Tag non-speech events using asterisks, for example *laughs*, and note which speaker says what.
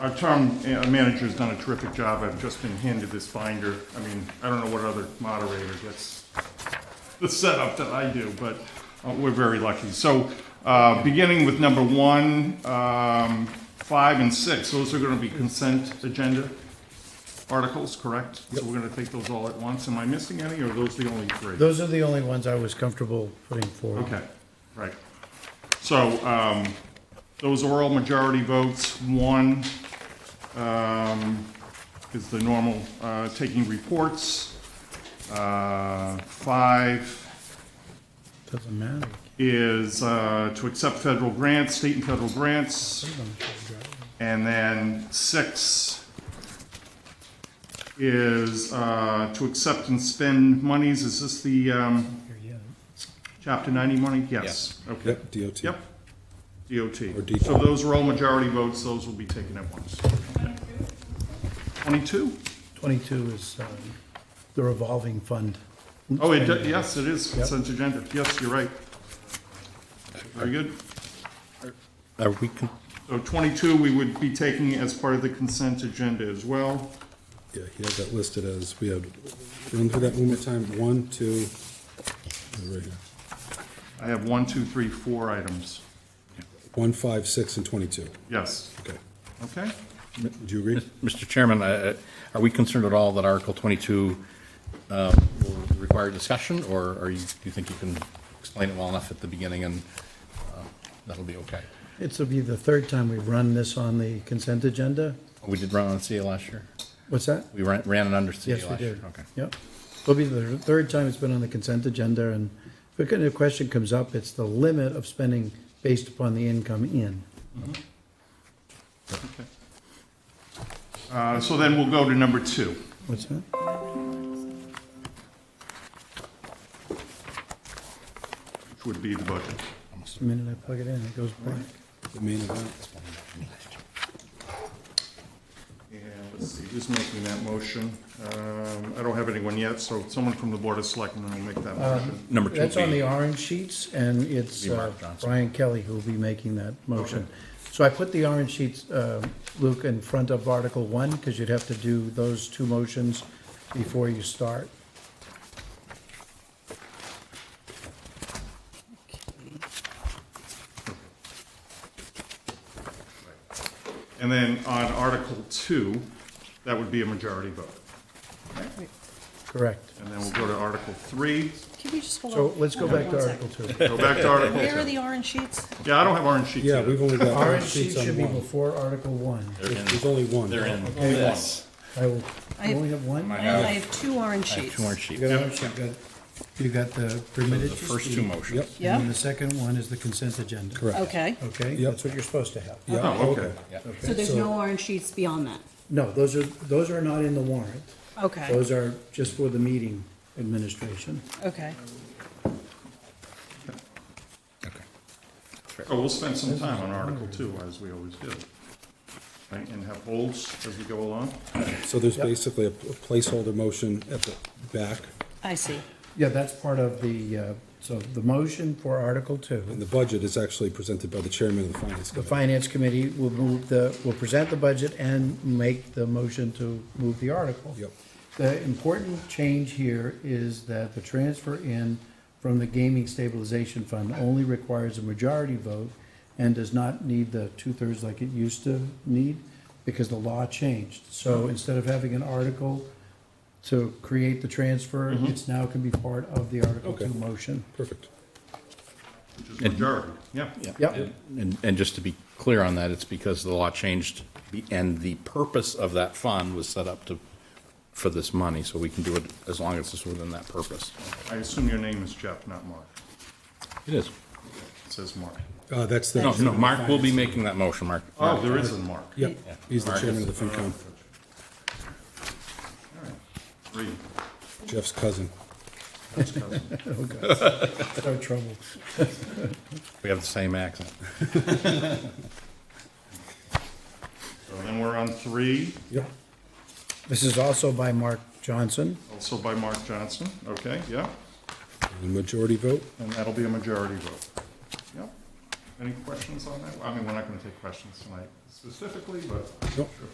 Speaker 1: Our town uh, manager's done a terrific job. I've just been handed this binder. I mean, I don't know what other moderator gets the setup that I do, but uh, we're very lucky. So, uh, beginning with number one, um, five and six, those are gonna be consent agenda articles, correct? So we're gonna take those all at once. Am I missing any, or are those the only three?
Speaker 2: Those are the only ones I was comfortable putting forward.
Speaker 1: Okay, right. So, um, those oral majority votes, one, um, is the normal, uh, taking reports. Uh, five,
Speaker 2: Doesn't matter.
Speaker 1: is uh, to accept federal grants, state and federal grants. And then six is uh, to accept and spend monies. Is this the um, Chapter 90 money? Yes. Okay.
Speaker 3: Yep, DOT.
Speaker 1: Yep.
Speaker 3: Or
Speaker 1: DOT.
Speaker 3: DOT.
Speaker 1: So those are all majority votes. Those will be taken at once. 22?
Speaker 2: Twenty-two is um, the revolving fund.
Speaker 1: Oh, it, do- yes, it is consent agenda. Yes, you're right. Very good.
Speaker 3: Are we, con-
Speaker 1: So 22, we would be taking as part of the consent agenda as well.
Speaker 3: yeah, he has that listed as, we have, run through that one more time, one, two, yeah, right here.
Speaker 1: I have one, two, three, four items.
Speaker 3: one, five, six, and twenty-two.
Speaker 1: Yes,
Speaker 3: Okay.
Speaker 1: okay?
Speaker 3: Do you agree?
Speaker 4: Mr. Chairman, uh, are we concerned at all that Article 22 uh, will require discussion, or are you, do you think you can explain it well enough at the beginning and uh, that'll be okay?
Speaker 2: It's will be the third time we've run this on the consent agenda.
Speaker 4: We did run on CA last year?
Speaker 2: What's that?
Speaker 4: We ran ran it under CA
Speaker 2: Yes, we
Speaker 4: last year?
Speaker 2: did.
Speaker 4: Okay.
Speaker 2: Yep. It'll be the third time it's been on the consent agenda, and if a kind of question comes up, it's the limit of spending based upon the income in.
Speaker 1: Uh, So then we'll go to number two.
Speaker 2: What's that?
Speaker 1: Which would be the budget.
Speaker 2: The minute I plug it in, it goes black.
Speaker 3: The main event?
Speaker 1: And let's see, who's making that motion? Um, I don't have anyone yet, so someone from the Board of Selectmen will make that motion.
Speaker 4: Number two.
Speaker 2: That's on
Speaker 4: B.
Speaker 2: the orange sheets, and it's
Speaker 4: Be Mark
Speaker 2: uh,
Speaker 4: Johnson.
Speaker 2: Brian Kelly who'll be making that motion. So I put the orange sheets, uh, Luke, in front of Article 1, because you'd have to do those two motions before you start.
Speaker 1: And then on Article Two, that would be a majority vote.
Speaker 2: Correct.
Speaker 1: And then we'll go to Article Three,
Speaker 5: Can we just hold on?
Speaker 2: So let's go
Speaker 5: Hold
Speaker 2: back
Speaker 5: on
Speaker 2: to
Speaker 5: one
Speaker 2: Article
Speaker 5: second.
Speaker 2: 2.
Speaker 1: go back to Article
Speaker 5: *laughs* Where are
Speaker 1: Two.
Speaker 5: the orange sheets?
Speaker 1: Yeah, I don't have orange sheets
Speaker 3: Yeah,
Speaker 1: yet.
Speaker 3: we've only got
Speaker 2: Orange
Speaker 3: orange
Speaker 2: sheet
Speaker 3: sheets
Speaker 2: should
Speaker 3: on
Speaker 2: be
Speaker 3: one.
Speaker 2: before Article 1.
Speaker 3: There's only one.
Speaker 4: They're in
Speaker 2: Yes. I will,
Speaker 5: I
Speaker 2: I
Speaker 5: have-
Speaker 2: only have one?
Speaker 5: I have two orange
Speaker 4: I have
Speaker 5: sheets.
Speaker 4: two orange
Speaker 2: You
Speaker 4: sheets.
Speaker 2: got orange, you've got, you've got the
Speaker 4: The
Speaker 2: permitted.
Speaker 4: first two motions.
Speaker 3: Yep.
Speaker 2: And then
Speaker 5: Yeah,
Speaker 2: the second one is the consent agenda.
Speaker 3: Correct.
Speaker 5: okay.
Speaker 2: Okay,
Speaker 3: Yep.
Speaker 2: that's what you're supposed to have.
Speaker 3: Yeah,
Speaker 1: Oh, okay.
Speaker 5: So there's no orange sheets beyond that?
Speaker 2: No, those are, those are not in the warrant.
Speaker 5: Okay,
Speaker 2: Those are just for the meeting administration.
Speaker 5: okay.
Speaker 4: Okay.
Speaker 1: So Oh, we'll spend some time on Article Two, as we always do. Right, and have holds as we go along.
Speaker 3: So there's
Speaker 2: Yep.
Speaker 3: basically a a placeholder motion at the back,
Speaker 5: I see.
Speaker 2: Yeah, that's part of the, uh, so the motion for Article
Speaker 3: and
Speaker 2: Two.
Speaker 3: the budget is actually presented by the chairman of the finance
Speaker 2: The
Speaker 3: committee.
Speaker 2: Finance Committee will move the, will present the budget and make the motion to move the article.
Speaker 3: Yep.
Speaker 2: The important change here is that the transfer in from the gaming stabilization fund only requires a majority vote and does not need the two-thirds like it used to need because the law changed. So instead of having an article to create the transfer, it's now can be part of the Article
Speaker 3: Okay.
Speaker 2: Two motion.
Speaker 3: Perfect.
Speaker 1: Which is majority, yeah.
Speaker 2: Yep.
Speaker 4: And, and just to be clear on that, it's because the law changed, the- and the purpose of that fund was set up to, for this money, so we can do it as long as it's within that purpose.
Speaker 1: I assume your name is Jeff, not Mark.
Speaker 4: It is.
Speaker 1: It says Mark.
Speaker 3: Uh, that's the.
Speaker 4: No, no, Mark will be making that motion, Mark.
Speaker 1: Oh, there is a Mark.
Speaker 3: Yep, he's the
Speaker 4: Mark
Speaker 3: chairman
Speaker 4: is-
Speaker 3: of the FinCom,
Speaker 1: Three.
Speaker 3: Jeff's cousin.
Speaker 2: Start trouble.
Speaker 4: We have the same accent.
Speaker 1: So then we're on three,
Speaker 3: Yep.
Speaker 2: This is also by Mark Johnson.
Speaker 1: also by Mark Johnson, okay, yeah,
Speaker 3: And Majority vote.
Speaker 1: and that'll be a majority vote. Yep. Any questions on that? I mean, we're not gonna take questions tonight specifically, but
Speaker 3: Nope.
Speaker 1: sure.